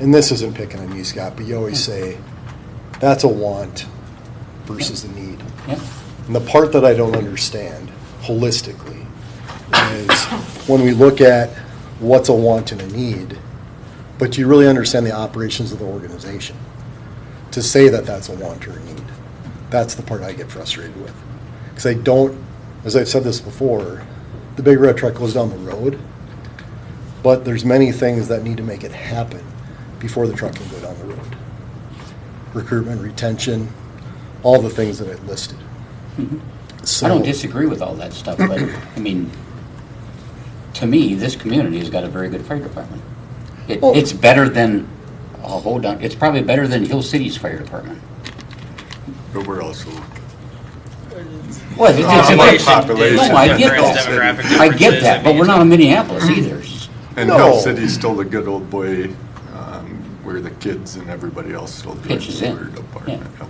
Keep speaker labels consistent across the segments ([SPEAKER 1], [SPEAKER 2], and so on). [SPEAKER 1] and this isn't picking on you, Scott, but you always say, that's a want versus a need.
[SPEAKER 2] Yeah,
[SPEAKER 1] And the part that I don't understand holistically is when we look at what's a want and a need, but do you really understand the operations of the organization? To say that that's a want or a need, that's the part I get frustrated with. Because I don't, as I've said this before, the big red truck goes down the road, but there's many things that need to make it happen before the truck can go down the road. Recruitment, retention, all the things that I listed.
[SPEAKER 2] Mm-hmm. I don't
[SPEAKER 1] So-
[SPEAKER 2] disagree with all that stuff, but, I mean, to me, this community has got a very good fire department. It,
[SPEAKER 1] Well-
[SPEAKER 2] it's better than, oh, hold on, it's probably better than Hill City's fire department.
[SPEAKER 3] But we're also,
[SPEAKER 2] Well, it's, it's.
[SPEAKER 3] Population
[SPEAKER 2] it's-
[SPEAKER 3] population
[SPEAKER 2] No, I get
[SPEAKER 3] difference,
[SPEAKER 2] that,
[SPEAKER 3] demographic
[SPEAKER 2] I get that, but we're not in Minneapolis
[SPEAKER 1] Mm-hmm.
[SPEAKER 2] either.
[SPEAKER 3] and
[SPEAKER 1] No.
[SPEAKER 3] Hill City's still the good old boy, um, where the kids and everybody else still do it.
[SPEAKER 2] Pitches in.
[SPEAKER 3] Weird apartment, yeah.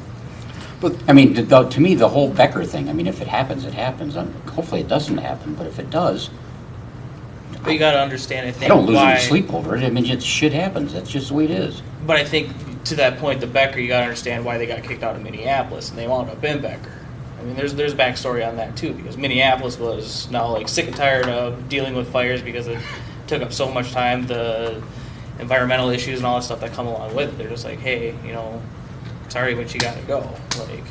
[SPEAKER 2] I mean, to, the- to me, the whole Becker thing, I mean, if it happens, it happens, Um, hopefully it doesn't happen, but if it does,
[SPEAKER 4] But you gotta understand, I think
[SPEAKER 2] I don't lose
[SPEAKER 4] why,
[SPEAKER 2] any sleep over it, I mean, it's, shit happens, that's just the way it is.
[SPEAKER 4] But I think to that point, the Becker, you gotta understand why they got kicked out of Minneapolis and they wound up in Becker. I mean, there's there's backstory on that too because Minneapolis was now like sick and tired of dealing with fires because it took up so much time, the environmental issues and all that stuff that come along with it. They're just like, hey, you know, sorry, but you gotta go. Like,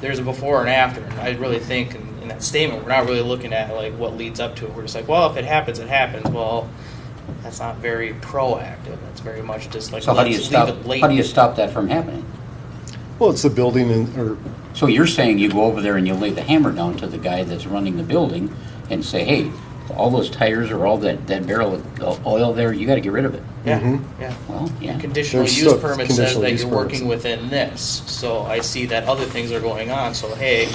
[SPEAKER 4] there's a before and after, and I really think in, in that statement, we're not really looking at like what leads up to it. We're just like, well, if it happens, it happens. Well, that's not very proactive. That's very much just like
[SPEAKER 2] So how do you
[SPEAKER 4] let's
[SPEAKER 2] stop,
[SPEAKER 4] leave it late.
[SPEAKER 2] how do you stop that from happening?
[SPEAKER 1] Well, it's the building and, or,
[SPEAKER 2] So you're saying you go over there and you lay the hammer down to the guy that's running the building and say, hey, all those tires or all that, that barrel of oil there, you gotta get rid of it.
[SPEAKER 4] Yeah,
[SPEAKER 1] Mhm.
[SPEAKER 2] Mm-hmm.
[SPEAKER 4] yeah.
[SPEAKER 2] Well, yeah.
[SPEAKER 4] Conditional
[SPEAKER 1] There's
[SPEAKER 4] use
[SPEAKER 1] still
[SPEAKER 4] permit says
[SPEAKER 1] conditional
[SPEAKER 4] that
[SPEAKER 1] use
[SPEAKER 4] you're
[SPEAKER 1] permits.
[SPEAKER 4] working within this. So I see that other things are going on. So hey,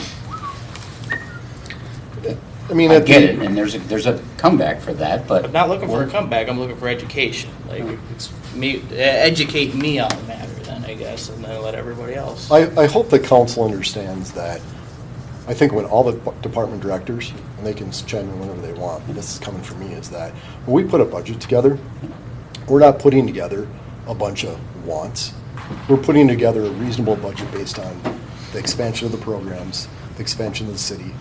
[SPEAKER 1] I mean.
[SPEAKER 2] I
[SPEAKER 1] at the-
[SPEAKER 2] get it, and there's a, there's a comeback for that, but.
[SPEAKER 4] I'm not looking for a
[SPEAKER 2] we're-
[SPEAKER 4] comeback. I'm looking for education. Like it's me e-, educate me on the matter, then I guess, and then let everybody else.
[SPEAKER 1] I, I hope the council understands that, I think when all the department directors, and they can chime in whenever they want, but this is coming from me, is that when we put a budget together, we're not putting together a bunch of wants. We're putting together a reasonable budget based on the expansion of the programs, the expansion of the city,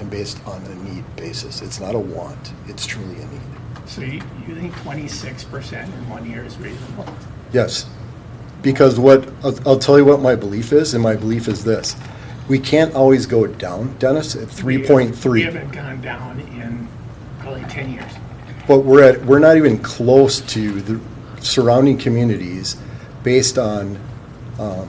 [SPEAKER 1] and based on a need basis. It's not a want, it's truly a need.
[SPEAKER 5] So you, you think twenty-six percent in one year is reasonable?
[SPEAKER 1] Yes, because what, I'll, I'll tell you what my belief is, and my belief is this. We can't always go down, Dennis, at
[SPEAKER 5] We-
[SPEAKER 1] three point
[SPEAKER 5] We
[SPEAKER 1] three,
[SPEAKER 5] haven't gone down in probably ten years.
[SPEAKER 1] but we're at, we're not even close to the surrounding communities based on, um,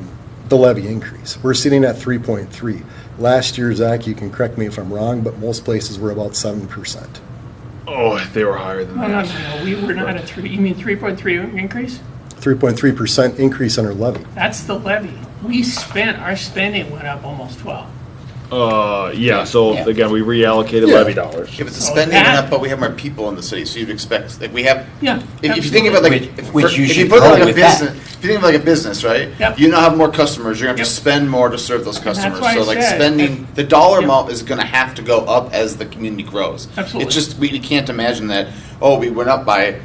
[SPEAKER 1] the levy increase. We're sitting at three point three. Last year, Zach, you can correct me if I'm wrong, but most places were about seven percent.
[SPEAKER 6] Oh, they were higher than
[SPEAKER 5] No, no,
[SPEAKER 6] that.
[SPEAKER 5] no, no, we were not at three, you mean three point three increase?
[SPEAKER 1] Three point three percent increase on our levy.
[SPEAKER 5] That's the levy. We spent, our spending went up almost twelve.
[SPEAKER 6] Uh, yeah, so
[SPEAKER 2] Yeah.
[SPEAKER 6] again, we reallocated
[SPEAKER 1] Yeah.
[SPEAKER 6] levy dollars.
[SPEAKER 7] Yeah, but the
[SPEAKER 5] So
[SPEAKER 7] spending went
[SPEAKER 5] Oh, that-
[SPEAKER 7] up, but we have more people in the city, so you'd expect, like, we have.
[SPEAKER 5] Yeah,
[SPEAKER 7] If, if you think about like,
[SPEAKER 2] Which-
[SPEAKER 7] if,
[SPEAKER 2] which you
[SPEAKER 7] if
[SPEAKER 2] should
[SPEAKER 7] you put it
[SPEAKER 2] grow
[SPEAKER 7] like a
[SPEAKER 2] with that.
[SPEAKER 7] business, if you think of like a business, right?
[SPEAKER 5] Yep.
[SPEAKER 7] You now have more customers, you're gonna have to
[SPEAKER 5] Yep.
[SPEAKER 7] spend more to serve those customers.
[SPEAKER 5] why I
[SPEAKER 7] So like
[SPEAKER 5] said-
[SPEAKER 7] spending, the dollar
[SPEAKER 5] Yep.
[SPEAKER 7] amount is gonna have to go up as the community grows.
[SPEAKER 5] Absolutely.
[SPEAKER 7] It's just, we can't imagine that, oh, we went up by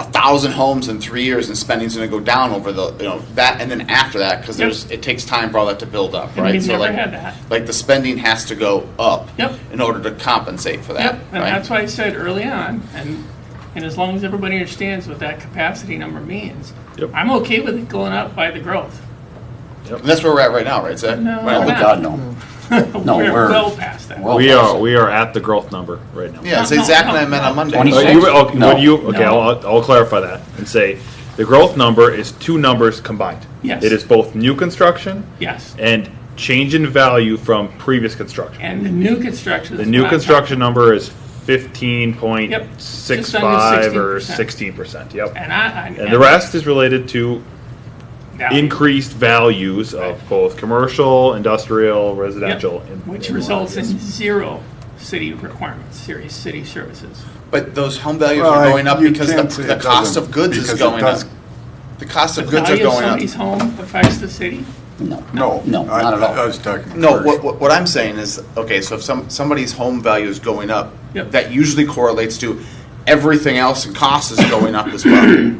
[SPEAKER 7] a thousand homes in three years and spending's gonna go down over the, you know, that, and then after that, cause
[SPEAKER 5] Yep.
[SPEAKER 7] there's, it takes time for all that to build up,
[SPEAKER 5] And
[SPEAKER 7] right?
[SPEAKER 5] we've
[SPEAKER 7] So,
[SPEAKER 5] never
[SPEAKER 7] like-
[SPEAKER 5] had that.
[SPEAKER 7] Like the spending has to go up.
[SPEAKER 5] Yep.
[SPEAKER 7] In order to compensate for that,
[SPEAKER 5] Yep,
[SPEAKER 7] right?
[SPEAKER 5] and that's why I said early on, and, and as long as everybody understands what that capacity number means,
[SPEAKER 6] Yep.
[SPEAKER 5] I'm okay with it going up by the growth.
[SPEAKER 7] And that's where we're at right now, right, Zach?
[SPEAKER 5] No,
[SPEAKER 7] Right
[SPEAKER 2] Oh,
[SPEAKER 7] on the
[SPEAKER 5] we're
[SPEAKER 2] God, no. No, we're-
[SPEAKER 5] We're well past that.
[SPEAKER 2] well-
[SPEAKER 6] We are, we are at the growth number right now.
[SPEAKER 7] Yeah,
[SPEAKER 5] No,
[SPEAKER 7] say
[SPEAKER 5] no,
[SPEAKER 7] Zach and I
[SPEAKER 5] no,
[SPEAKER 7] met
[SPEAKER 5] no.
[SPEAKER 7] on Monday.
[SPEAKER 6] Uh,
[SPEAKER 2] 26?
[SPEAKER 6] you- okay,
[SPEAKER 2] No.
[SPEAKER 6] would you, okay,
[SPEAKER 5] No.
[SPEAKER 6] I'll, I'll- I'll clarify that and say, the growth number is two numbers combined.
[SPEAKER 5] Yes.
[SPEAKER 6] It is both new construction
[SPEAKER 5] Yes,
[SPEAKER 6] and change in value from previous construction.
[SPEAKER 5] and the new construction.
[SPEAKER 6] The
[SPEAKER 5] is
[SPEAKER 6] new
[SPEAKER 5] about-
[SPEAKER 6] construction number is fifteen point six five or sixteen percent, yep.
[SPEAKER 5] And I, I.
[SPEAKER 6] And the rest is related to
[SPEAKER 5] Now-
[SPEAKER 6] increased values of both commercial, industrial,
[SPEAKER 5] Yep.
[SPEAKER 6] residential. and-
[SPEAKER 5] Which
[SPEAKER 6] and
[SPEAKER 5] results in
[SPEAKER 6] lodges.
[SPEAKER 5] zero city requirements, serious city services.
[SPEAKER 7] But those home values
[SPEAKER 3] Well, I-
[SPEAKER 7] are going up
[SPEAKER 3] you
[SPEAKER 7] because the,
[SPEAKER 3] can't say
[SPEAKER 7] the
[SPEAKER 3] it
[SPEAKER 7] cost
[SPEAKER 3] doesn't,
[SPEAKER 7] of goods is
[SPEAKER 3] because it
[SPEAKER 7] going up.
[SPEAKER 3] does-
[SPEAKER 7] The cost of
[SPEAKER 5] The
[SPEAKER 7] goods are
[SPEAKER 5] value of
[SPEAKER 7] going up.
[SPEAKER 5] somebody's home affects the city.
[SPEAKER 2] No.
[SPEAKER 3] No.
[SPEAKER 2] No,
[SPEAKER 3] I-
[SPEAKER 2] not at
[SPEAKER 3] I
[SPEAKER 2] all.
[SPEAKER 3] was talking.
[SPEAKER 7] No,
[SPEAKER 3] commercial.
[SPEAKER 7] what, what, what I'm saying is, okay, so if some, somebody's home value is going up,
[SPEAKER 5] Yep.
[SPEAKER 7] that usually correlates to everything else and cost is going up as well.